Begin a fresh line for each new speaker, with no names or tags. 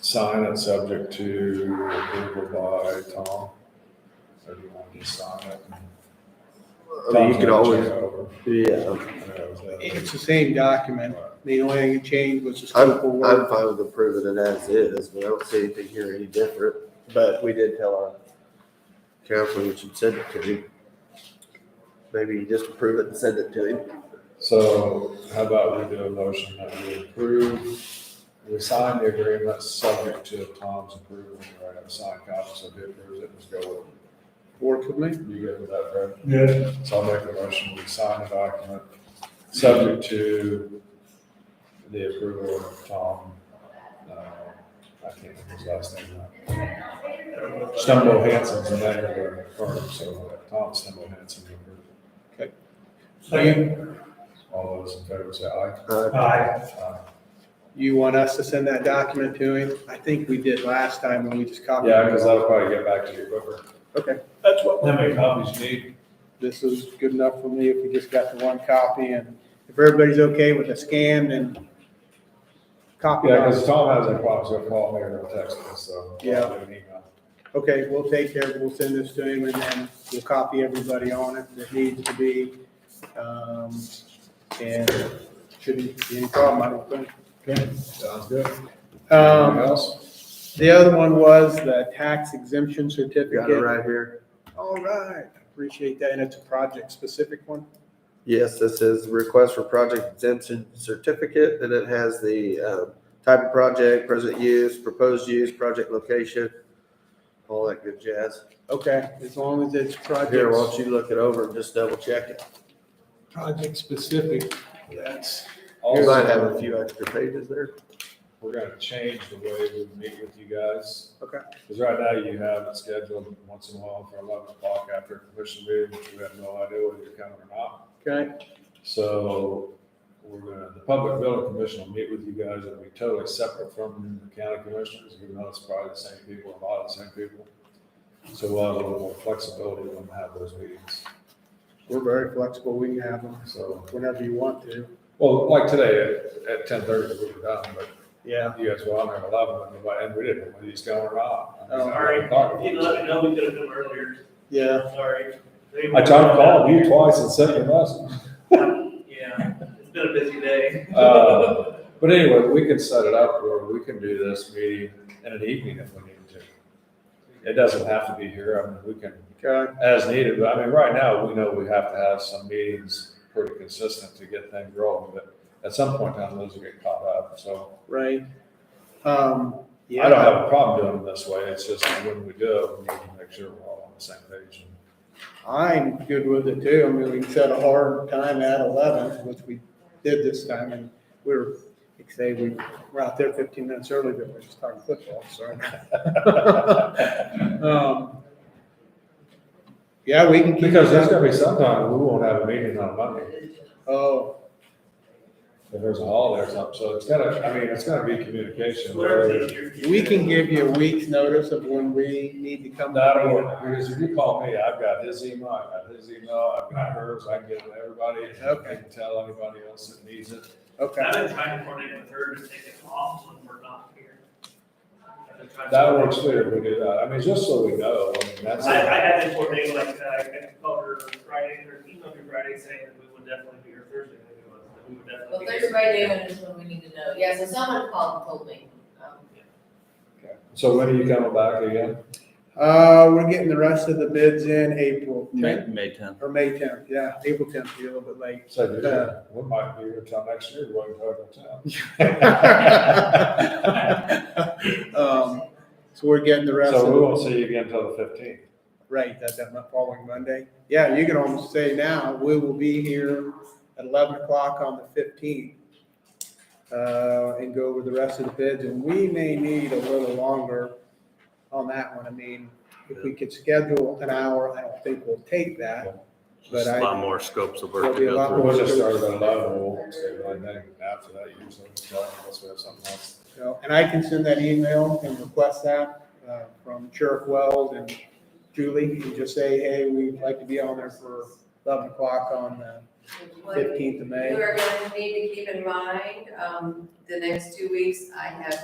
sign it subject to approval by Tom? Or do you want to sign it?
I mean, you could always, uh, yeah,
always.
It's the same document. The only thing that changed was the
I'm,
scope of
I'm
work.
fine with approving it as is, but I don't see anything here any different. But we did tell our counselor we should send it to him. Maybe you just approve it and send it to him.
So how about we do a motion that we approve, we sign the agreement subject to Tom's approval, right? Have a signed copy, so if he approves it, just go
Work with me.
with it. You good with that, Fred?
Yeah,
So I'll make the motion, we sign the document, subject to the approval of Tom, uh, I can't remember his last name now. Stumble Hanson's the name of the firm, so uh, Tom Stumble Hanson.
second,
All those in favor say aye.
Uh,
aye,
Aye.
You want us to send that document to him? I think we did last time when we just copied.
Yeah, because that'll probably get back to you quicker.
That's what.
How many copies you need?
This is good enough for me if we just got the one copy and if everybody's okay with the scan, then copy
Yeah, because
that.
Tom has a problem, so call me or text me, so.
Yeah.
I'll do an email.
Okay, we'll take care, of it. we'll send this to him and then we'll copy everybody on it that needs to be. Um, and shouldn't be any problem, I don't think.
Okay, sounds good. Anything
Um,
else?
The other one was the tax exemption certificate.
Got it right here.
All right, appreciate that, and it's a project-specific one.
Yes, this is request for project exemption certificate and it has the, um, type of project, present use, proposed use, project location, all that good jazz.
Okay, as long as it's
Here, why
project,
don't you look it over and just double check it?
project-specific, that's,
You might have
Also-
a few extra pages there.
we're gonna change the way we meet with you guys.
Okay.
Because right now you have it scheduled once in a while for eleven o'clock after a commission meeting, which we have no idea whether you're coming or not.
okay,
So we're gonna, the public building commission will meet with you guys, it'll be totally separate from the county commissioners, even though it's probably the same people, a lot of the same people. So we'll have a little more flexibility when we have those meetings,
we're very flexible, we can have them
so,
whenever you want to.
well, like today at, at ten thirty, we were done, but
Yeah.
You guys were on there at eleven, and nobody- and we didn't, know whether he's going or not.
Oh, all
right. You
I
let me know, we could have come earlier,
Yeah,
sorry.
tried to call you twice and sent you a message.
Yeah, it's been a busy day.
Uh, But anyway, we can set it up where we can do this meeting in an evening if we need to. It doesn't have to be here, I mean, we can,
okay,
as needed, but I mean, right now, we know we have to have some meetings pretty consistent to get things rolling, but at some point in time, those will get caught up, so.
right. Um,
I don't
yeah,
have a problem doing it this way, it's just when we do, it, we need to make sure we're all on the same page.
I'm good with it too, I mean, we can set a hard time at eleven, which we did this time, and we were, like I say, we were out there fifteen minutes early, but we we're just talking football, so. Um, Yeah, we can keep.
Because there's
that.
gonna be sometime, we won't have a meeting on Monday,
Oh,
if there's a holiday or something, so it's gotta, I mean, it's gotta be communication.
Whatever's easier.
we can give you a week's notice of when we need to come.
Not over, because if you call me, I've got his email, I've got his email, I've got hers, I can get it to everybody, and I can tell anybody else that needs it.
Okay,
I've been trying to coordinate with her to take it off when we're not here. I've been trying to-
That works too, if we do that, I mean, just so we know, I mean, that's.
I, I had to coordinate like, uh, I called her Friday, or emailed her Friday saying that we would definitely be here Thursday, I think it was, that we would definitely
Well,
be
Thursday,
here.
Friday, when is when we need to know, yeah, so someone called and told me, um,
So when are you coming back again?
uh, we're getting the rest of the bids in April,
May, May tenth.
or May tenth, yeah, April tenth, be a little bit late.
So, do
Uh.
you- we might be here till next year, we're town.
Um, so we're getting the rest
So we
of,
won't see you again till the fifteenth.
right, that's that mon- following Monday. Yeah, you can almost say now, we will be here at eleven o'clock on the fifteenth. Uh, and go over the rest of the bids, and we may need a little longer on that one. I mean, if we could schedule an hour, I don't think we'll take that. But
Just a lot
I,
more scopes of
There'll
work
be
to
a
go
lot
through.
We'll just start at eleven, we'll stay right there after that usually, unless we have something else.
you know, and I can send that email and request that, uh, from Sheriff Wells and Julie, and just say, hey, we'd like to be on there for eleven o'clock on the
what
fifteenth of
you
May.
are going to need to keep in mind, um, the next two weeks, I have